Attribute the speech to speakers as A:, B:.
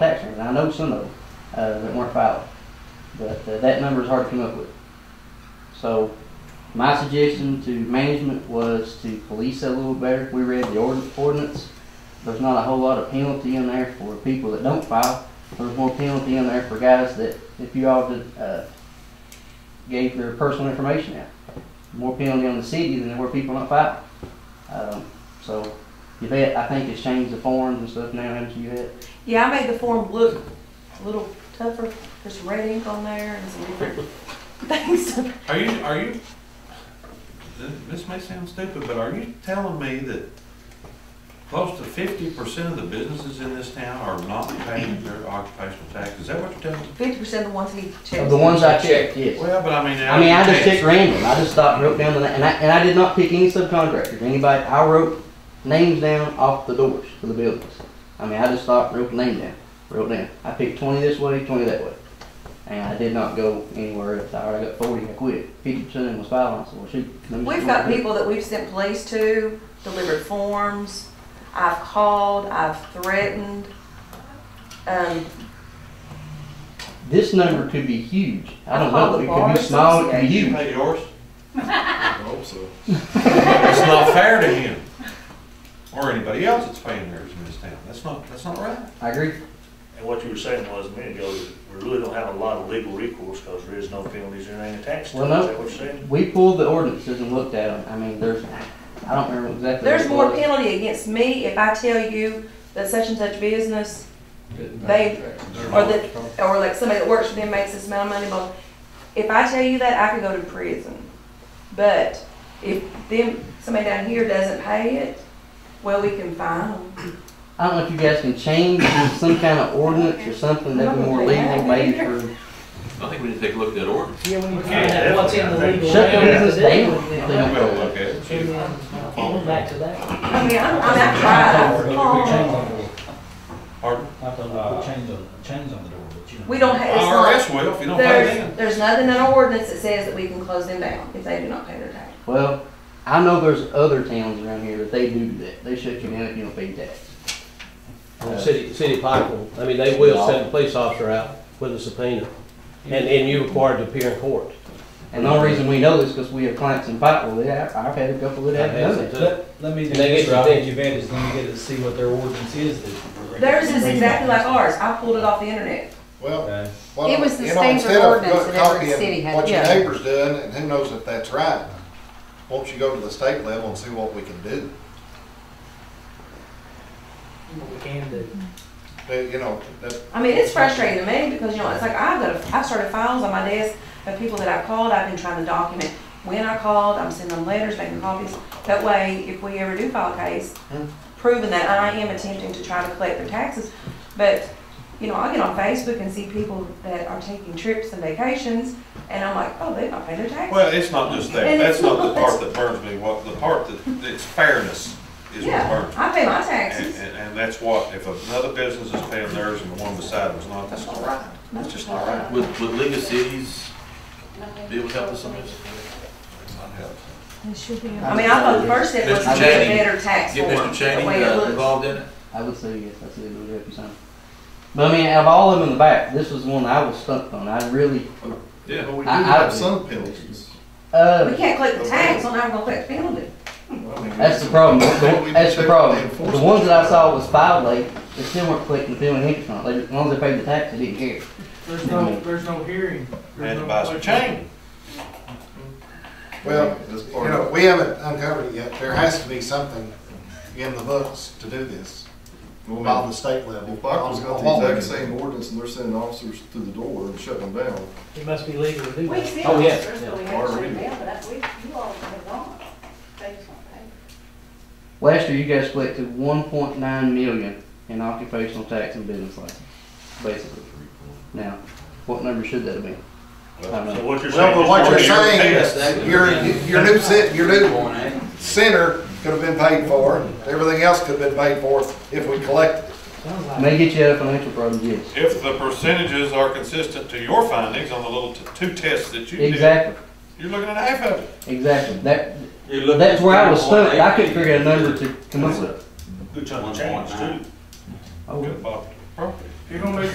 A: taxes. I know some of them uh, that weren't filed, but uh, that number is hard to come up with. So my suggestion to management was to police that a little better. We read the ord- ordinance. There's not a whole lot of penalty in there for people that don't file. There's more penalty in there for guys that, if you all did, uh, gave their personal information out. More penalty on the city than where people don't file. Um, so Yvette, I think has changed the forms and stuff now, haven't you, Yvette?
B: Yeah, I made the form look a little tougher. There's red ink on there and some different things.
C: Are you, are you, th- this may sound stupid, but are you telling me that close to fifty percent of the businesses in this town are not paying their occupational tax? Is that what you're telling me?
B: Fifty percent of the ones he
A: Of
B: checks.
A: the ones I checked, yes.
C: Well, but I mean.
A: I mean, I just checked random. I just stopped and wrote down the, na- and I, and I did not pick any subcontractors, anybody. I wrote names down off the doors for the buildings. I mean, I just stopped, and wrote the name down, wrote down. I picked twenty this way, twenty that way. And I did not go anywhere else. I already got forty, I quit. Fifty percent of them was filing, so well, shoot. let me just
B: We've got
A: work it.
B: people that we've sent police to, delivered forms. I've called, I've threatened. Um,
A: This number could be huge. I don't
B: Call
A: know.
B: the
A: It
B: Bar
A: could be small, it could be
C: You
A: huge.
C: pay yours?
D: I hope so.
C: It's not fair to him or anybody else that's paying theirs in this town. That's not, that's not right.
A: I agree.
E: And what you were saying was a minute ago, we really don't have a lot of legal recourse because there is no penalties and ain't attached to it.
A: Well, no.
E: Is that what you're saying?
A: We pulled the ordinances and looked at them. I mean, there's, I don't remember exactly.
B: there's
A: what it
B: more
A: was.
B: penalty against me if I tell you that such and such business, they, or that, or like somebody that works for them makes this amount of money, blah. If I tell you that, I could go to prison. But if them, somebody down here doesn't pay it, well, we can fine them.
A: I don't know if you guys can change to some kind of ordinance or something that'd be more legal, maybe for,
F: I think we need to take a look at that ordinance.
G: Yeah, we need to
C: Okay,
G: find out
E: that's
G: what's in
E: what
G: the
E: I think.
G: legal.
A: shut their
G: language
A: business
G: to do
A: down. if
G: with it.
A: they
C: I'm
A: don't
C: gonna
A: follow
C: look
A: it.
C: at it.
G: And then, uh, Going back to that.
B: I mean, I'm, I'm not trying to harm.
C: Pardon?
H: Not the, put chains on, chains on the door, but you know.
B: We don't have, it's not,
C: IRS will if you don't pay them.
B: there's, there's nothing in our ordinance that says that we can close them down if they do not pay their tax.
A: Well, I know there's other towns around here that they do that. They shut you down if you don't pay Uh, tax.
I: Well, City, city pipe, I mean, they will send a police officer out with a subpoena, and, and you're required to appear in court.
A: And the only reason we know this because we have clients in Pikeville that I- I've had a couple that have done it.
H: Let, let me do
I: And they
H: this,
I: get your
H: right,
I: thing.
H: you've added, let me get to see what their ordinance is. that-
B: Theirs is exactly like ours. I pulled it off the internet.
D: Well,
H: Okay.
D: well,
J: It was the
D: you know,
J: standard
D: instead of
J: ordinance that every
D: copying
J: city had,
D: What your
J: yeah.
D: neighbor's doing, and who knows if that's right. Won't you go to the state level and see what we can do?
G: What we can do.
D: Uh, You know, that,
B: I mean, it's frustrating to me because, you know, it's like I've got, I've started files on my desk of people that I called. I've been trying to document when I called. I'm sending them letters, making copies. That way, if we ever do file a case, proving that I am attempting to try to collect their taxes. But, you know, I get on Facebook and see people that are taking trips and vacations and I'm like, oh, they don't pay their taxes.
C: Well, it's not just that,
B: And
C: that's
B: it's
C: not the
B: not-
C: part that burns me, what, the part that, it's fairness is what
B: Yeah,
C: burns me.
B: I pay my
C: And,
B: taxes.
C: and, and that's what, if another business is paying theirs and the one beside them's not, that's not right, that's just not right.
F: Would, would League of Cities be able to help us on this?
B: I mean, I thought the first step was to
F: Mr.
B: get a
F: Cheney,
B: better tax
F: Get
B: form,
F: Mr.
B: the way
F: Cheney
B: it
F: uh,
B: looks.
F: involved in it?
A: I would say yes, that's a good would help you some. But I mean, out of all of them in the back, this was one I was stumped on. I really,
F: Yeah.
D: we do
A: I- I-
D: have some penalties.
A: uh,
B: We can't collect the tax, so now we're gonna collect the penalty.
A: That's the problem. That's the problem. The ones that I saw was filed late, they still weren't collecting the penalty interest on it. They- As long as they paid the tax, they didn't care.
G: There's no, there's no hearing. There's
C: And
G: no
C: buy some
G: question.
C: chain.
D: Well, you know, we haven't uncovered it yet. There has to be something in the books to do this, by the state level.
K: If Buckland's got
D: What we
K: the exact
D: can do.
K: same ordinance and they're sending officers through the door and shutting them down,
G: It must be legal to do
J: We
G: that.
J: see
I: Oh, yeah,
J: officers, but we
K: yeah.
J: have to
K: Or we-
J: shut down, but that's, we, you all have gone. They just won't pay.
A: Last year, you guys collected one point nine million in occupational tax and business license, basically. Now, what number should that have been? I don't
E: So
A: know.
E: what you're
D: Well,
E: saying
D: but
E: is.
D: what you're
E: what you're
D: saying
E: paying.
D: is, your, your new cent, your new center could have been paid for, everything else could have been paid for if we collected.
G: Sounds like.
A: May get you out of financial problems, yes.
C: If the percentages are consistent to your findings on the little t- two tests that you did,
A: Exactly,
C: you're looking at half of it.
A: exactly. That, that's where I was stumped. I couldn't figure out a number to come up with.
E: Good chunk of change too.
A: Oh,
C: Good about property.
G: You're gonna make